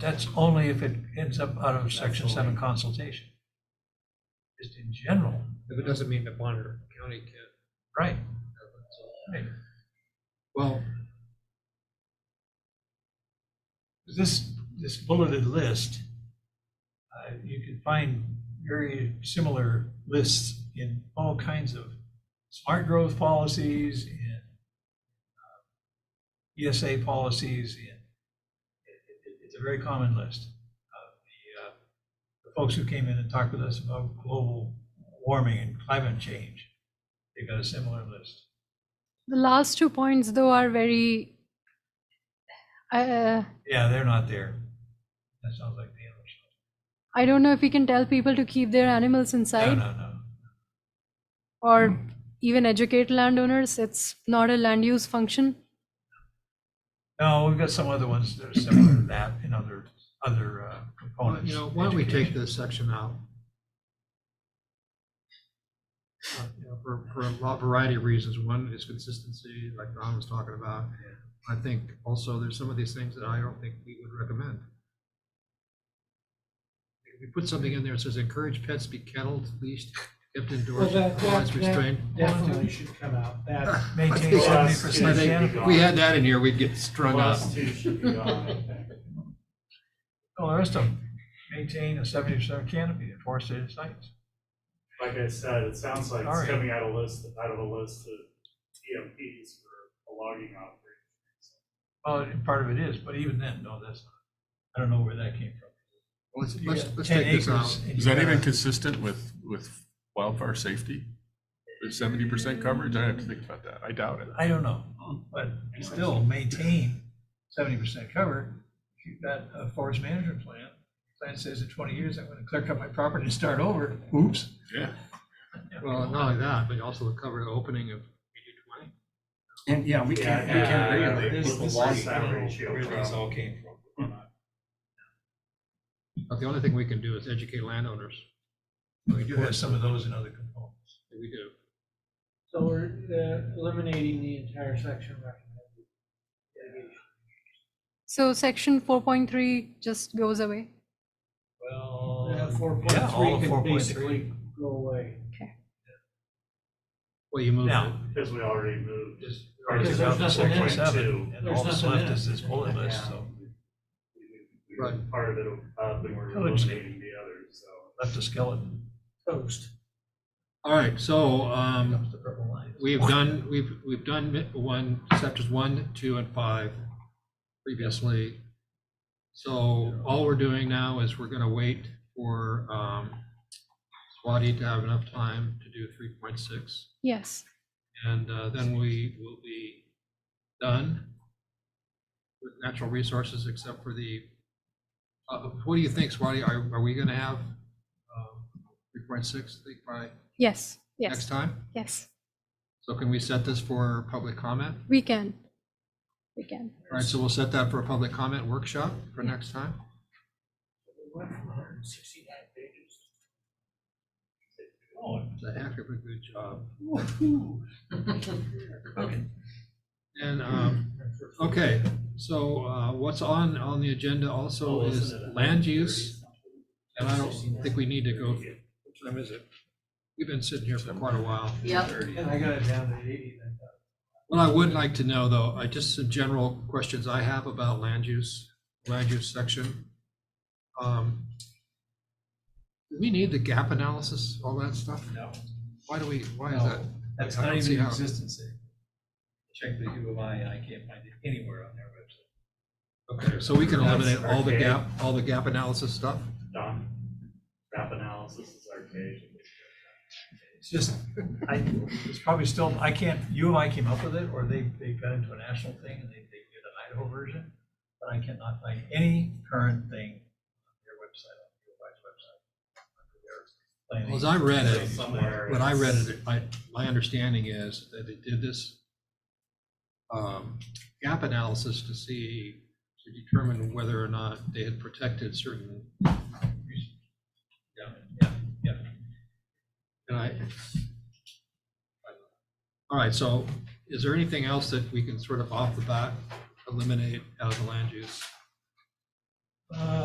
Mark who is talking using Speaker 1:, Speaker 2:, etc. Speaker 1: That's only if it ends up out of section seven
Speaker 2: Absolutely.
Speaker 1: consultation. Just in general,
Speaker 2: If it doesn't mean that Bonner County can't
Speaker 1: right,
Speaker 2: have it, so.
Speaker 1: right.
Speaker 2: Well,
Speaker 1: This, this bulleted list, uh, you can find very similar lists in all kinds of smart growth policies and uh, ESA policies. and it- it- It's a very common list. Uh, the, uh, The folks who came in and talked with us about global warming and climate change, they got a similar list.
Speaker 3: The last two points, though, are very. Uh,
Speaker 1: Yeah, they're not there. That sounds like the animal shelter.
Speaker 3: I don't know if we can tell people to keep their animals
Speaker 1: No,
Speaker 3: inside
Speaker 1: no, no.
Speaker 3: or even educate landowners. It's not a land use function.
Speaker 1: No, we've got some other ones that are similar to that in other, other uh,
Speaker 2: why-
Speaker 1: components.
Speaker 2: you know, why don't we take
Speaker 1: Education.
Speaker 2: this section out? Uh, you know, For, for a lot- variety of reasons. One is consistency, like Ron was talking about. I think also there's some of these things that I don't think we would recommend. If we put something in there that says encourage pets to be kennelled, leashed, kept
Speaker 4: Well,
Speaker 2: indoors,
Speaker 4: that, that,
Speaker 2: otherwise restrained.
Speaker 4: that definitely should come out,
Speaker 5: Ah,
Speaker 4: that's.
Speaker 1: Maintain seventy
Speaker 2: I
Speaker 1: percent
Speaker 4: Well,
Speaker 2: think
Speaker 1: canopy.
Speaker 2: if we had that in here, we'd get strung up.
Speaker 4: Plus two should be gone, I think.
Speaker 1: All the rest of them, maintain a seventy percent canopy in forested sites.
Speaker 6: Like I said, it sounds like
Speaker 1: All right.
Speaker 6: it's coming out of list, out of a list of TMPs for a logging operation.
Speaker 1: Well, and part of it is, but even then, no, that's, not. I don't know where that came from.
Speaker 2: Let's,
Speaker 1: You
Speaker 2: let's,
Speaker 1: got
Speaker 2: let's
Speaker 1: 10
Speaker 2: take this out.
Speaker 1: acres and
Speaker 7: Is
Speaker 1: you
Speaker 7: that
Speaker 1: got a-
Speaker 7: even consistent with, with wildfire safety? With seventy percent coverage, I have to think about that, I doubt it.
Speaker 1: I don't know, but still maintain seventy percent cover. If you've got a forest management plan, plan says in twenty years, I'm gonna clear cut my property and start over. Oops.
Speaker 7: Yeah.
Speaker 2: Well, not only that, but also cover the opening of eighty twenty.
Speaker 5: And, yeah, we can't, we
Speaker 6: Yeah,
Speaker 5: can't regulate
Speaker 6: they
Speaker 5: this.
Speaker 6: put the
Speaker 5: This
Speaker 6: long
Speaker 5: is-
Speaker 6: side ratio from-
Speaker 5: all came from.
Speaker 2: But the only thing we can do is educate landowners.
Speaker 1: We do have some of those in other components.
Speaker 2: We do.
Speaker 4: So we're uh, eliminating the entire section recommended.
Speaker 3: So section 4.3 just goes away.
Speaker 1: Well,
Speaker 4: Uh, Four
Speaker 1: yeah, all
Speaker 4: point
Speaker 1: of
Speaker 4: three
Speaker 1: 4.3.
Speaker 4: can basically go away.
Speaker 2: Well, you moved it.
Speaker 1: Now,
Speaker 6: Because we already moved.
Speaker 1: just.
Speaker 6: Or
Speaker 4: Because
Speaker 1: just
Speaker 4: there's
Speaker 1: out to
Speaker 4: nothing in
Speaker 1: 4.7,
Speaker 4: it.
Speaker 1: And
Speaker 4: There's
Speaker 1: all that's
Speaker 4: nothing in
Speaker 1: left
Speaker 4: it.
Speaker 1: is this bullet list,
Speaker 4: Yeah.
Speaker 1: so
Speaker 6: we
Speaker 2: Right.
Speaker 6: moved Part of it up and we're
Speaker 2: Oh,
Speaker 1: I would say-
Speaker 6: eliminating the others, so.
Speaker 1: left a skeleton.
Speaker 4: Toast.
Speaker 2: All right, so, um,
Speaker 1: Comes the purple line.
Speaker 2: we've done, we've, we've done mi- one, chapters one, two, and five previously. So all we're doing now is we're gonna wait for, um, Swati to have enough time to do three point six.
Speaker 3: Yes.
Speaker 2: And uh, then we will be done with natural resources except for the, uh, what do you think, Swati? Are, are we going to have um, 3.6, I think, by
Speaker 3: Yes. Yes.
Speaker 2: next time?
Speaker 3: Yes.
Speaker 2: So can we set this for public comment?
Speaker 3: We can. We can.
Speaker 2: All right, so we'll set that for a public comment workshop for next time.
Speaker 4: We went from 169 pages
Speaker 2: It's Oh, a heck of a good job.
Speaker 1: Okay.
Speaker 2: And, um, okay, to- so uh, what's on, on the agenda also is land use. And I don't think we need to go, what time is it? We've been sitting here for quite a while.
Speaker 4: to- And I got it down to 80 then.
Speaker 2: Well, I would like to know, though, I just some general questions I have about land use, land use section. Um, Do we need the gap analysis, all that stuff?
Speaker 5: No.
Speaker 2: Why do we, why is that?
Speaker 5: That's
Speaker 2: I
Speaker 5: not
Speaker 2: don't see
Speaker 5: even in
Speaker 2: how-
Speaker 5: existence. there. Check the U of I and I can't find it anywhere on their website.
Speaker 2: Okay, so we can eliminate all the
Speaker 6: That's
Speaker 2: gap, all the gap analysis stuff?
Speaker 6: Done. Gap analysis is archaic.
Speaker 1: It's just, I, it's probably still, I can't, you and I came up with it, or they, they got into a national thing and they, they did an Idaho version, but I cannot find any current thing on their website, on U of I's website. under their planning.
Speaker 2: Well, As I read it,
Speaker 6: Somewhere.
Speaker 2: When I read
Speaker 6: it's-
Speaker 2: it, I, my understanding is that they did this um, gap analysis to see, to determine whether or not they had protected certain.
Speaker 1: Yeah, yeah, yeah.
Speaker 2: And I. All right, so is there anything else that we can sort of off the bat eliminate out of the land use?
Speaker 1: Uh,